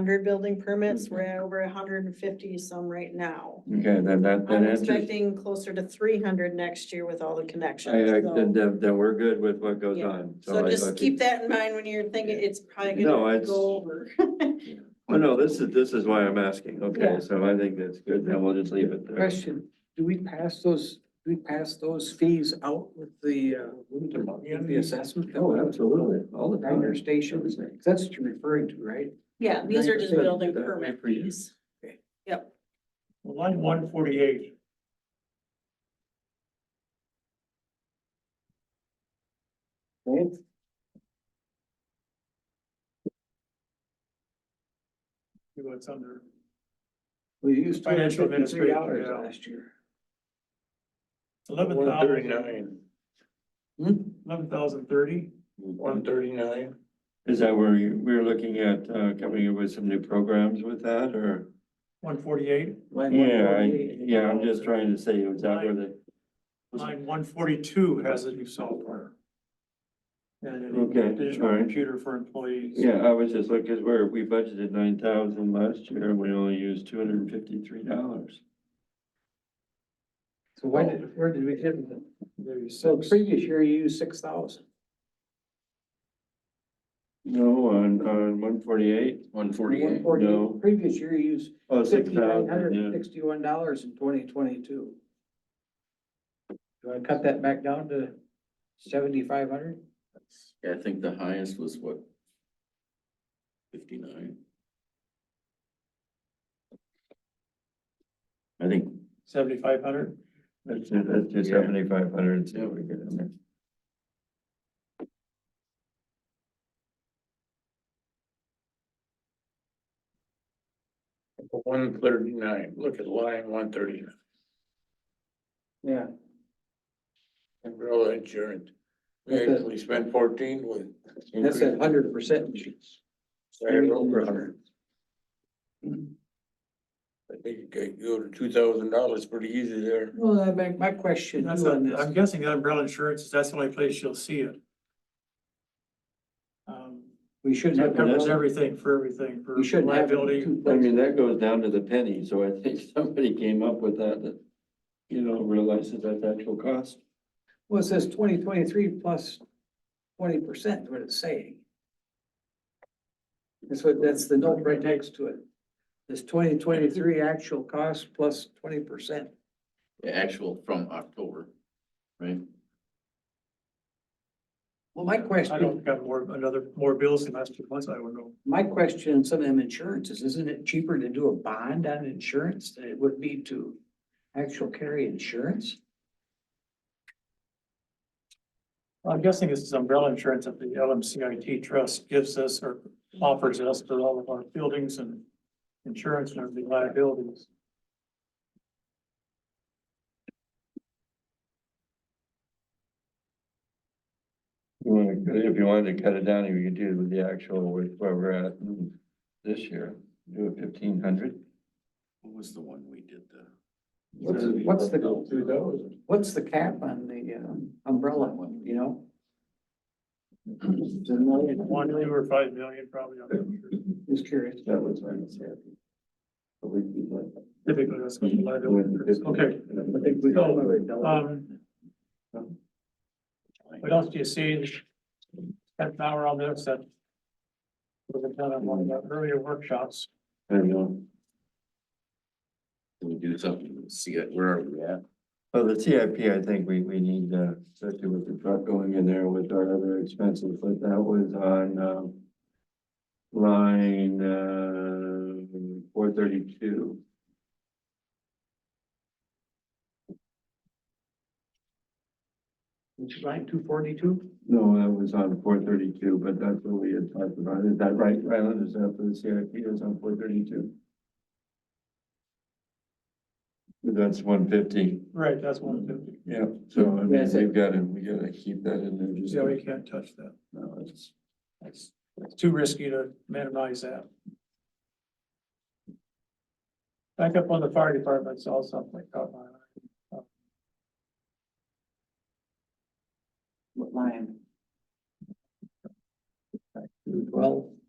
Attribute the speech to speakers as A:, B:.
A: hundred building permits, we're at over hundred and fifty some right now.
B: Okay, then that, that
A: I'm
B: answers,
A: expecting closer to three hundred next year with all the
B: I,
A: connections.
B: I,
A: so-
B: then, then then we're good with what goes
A: Yeah.
B: on.
A: So
B: I- I
A: just
B: think-
A: keep that in mind when you're thinking it's probably
B: No,
A: gonna
B: it's-
A: go over.
B: Oh, no, this is, this is why I'm asking.
A: Yeah.
B: Okay, so I think that's good. Then we'll just leave it there.
C: Question, do we pass those, do we pass those fees out with the, uh, with the assessment?
B: Oh, absolutely. All the time.
C: Diner stations, that's what you're referring to, right?
A: Yeah, these are just
C: 9%,
A: building
B: that'd be
A: permit
B: for you.
A: fees.
D: Well, Line one forty-eight.
C: Right?
D: See what's under.
C: We used two
D: Financial
C: hundred fifty-three dollars
D: administration, yeah.
C: last year.
D: Eleven thousand,
C: Hmm?
D: eleven thousand thirty. One thirty-nine.
B: Is that where you, we're looking at, uh, coming up with some new programs with that or?
D: One forty-eight,
C: Line
B: Yeah, I,
C: 148.
B: yeah, I'm just trying to say, is that where the,
D: line one forty-two has a new software. And an
B: Okay, all
D: additional
B: right.
D: computer for employees.
B: yeah, I was just looking, cause we're, we budgeted nine thousand last year and we only used two hundred and fifty-three dollars.
C: So why did, where did we hit it?
D: Maybe
C: So
D: six.
C: previous year you used six thousand.
B: No, on, on one forty-eight,
E: One forty-eight.
B: No.
C: Previous year you used
B: oh, six
C: fifty-nine hundred and
B: thousand,
C: sixty-one dollars in twenty twenty-two. Do I cut that back down to seventy-five hundred?
E: Yeah, I think the highest was what? Fifty-nine. I think,
D: Seventy-five hundred.
B: yeah. That's, it, that's just
E: Yeah.
B: seventy-five hundred, see what we get in there.
F: One thirty-nine, look at line one thirty-nine,
C: Yeah.
F: umbrella insurance. We
C: That's a-
F: actually spent fourteen with.
C: That's a hundred percent.
F: Sorry, over a hundred. I think you could go to two thousand dollars pretty easy there.
C: Well, I make my question
D: That's,
C: too on
D: a- I'm
C: this.
D: guessing the umbrella insurance, that's the only place you'll see it. Um,
C: We shouldn't
D: That covers
C: have,
D: everything for everything, for
C: we shouldn't have
D: liability.
C: two
B: I mean,
C: places.
B: that goes down to the penny, so I think somebody came up with that, that, you know, realizes that's actual cost.
C: Well, it says twenty twenty-three plus twenty percent, what it's saying. That's what, that's the note right next to it. This twenty twenty-three actual cost plus twenty percent.
E: the actual from October, right?
C: Well, my
D: I
C: question,
D: don't got more, another, more bills than last two months, I don't know.
C: my question on some of them insurances, isn't it cheaper to do a bond on insurance than it would be to actual carry insurance?
D: I'm guessing this is umbrella insurance that the LMCIT trust gives us or offers us for all of our buildings and insurance and everything liabilities.
B: You wanna cut it- If you wanted to cut it down, you could do it with the actual, with where we're at this year, do a fifteen hundred.
E: What was the one we did the?
C: What's, what's the, what's the cap on the um, umbrella one, you know? Is it a million?
D: One, two or five million probably. I'm not sure.
C: Just curious.
B: That was what I was happy. But we keep like-
D: Typically, that's what the liability is. Okay,
C: uh,
D: um. What else do you see? Spent an hour on this that. Was done on one of the earlier workshops.
B: I don't know.
E: Can we do something, see it, where are we at?
B: Well, the CIP, I think we, we need, uh, especially with the truck going in there with our other expenses, but that was on, um, line, uh, four thirty-two.
C: Which line, two forty-two?
B: No, that was on four thirty-two, but that's what we had talked about. Is that right, Ryland? Is that for the CIP is on four thirty-two? That's one fifty.
D: Right, that's one fifty.
B: Yeah. So I mean,
C: That's it.
B: we've got to, we gotta keep that in there just.
D: Yeah, we can't touch that.
B: No, it's-
D: It's it's too risky to minimize that. Back up on the fire department, saw something caught my eye.
C: What line? Well,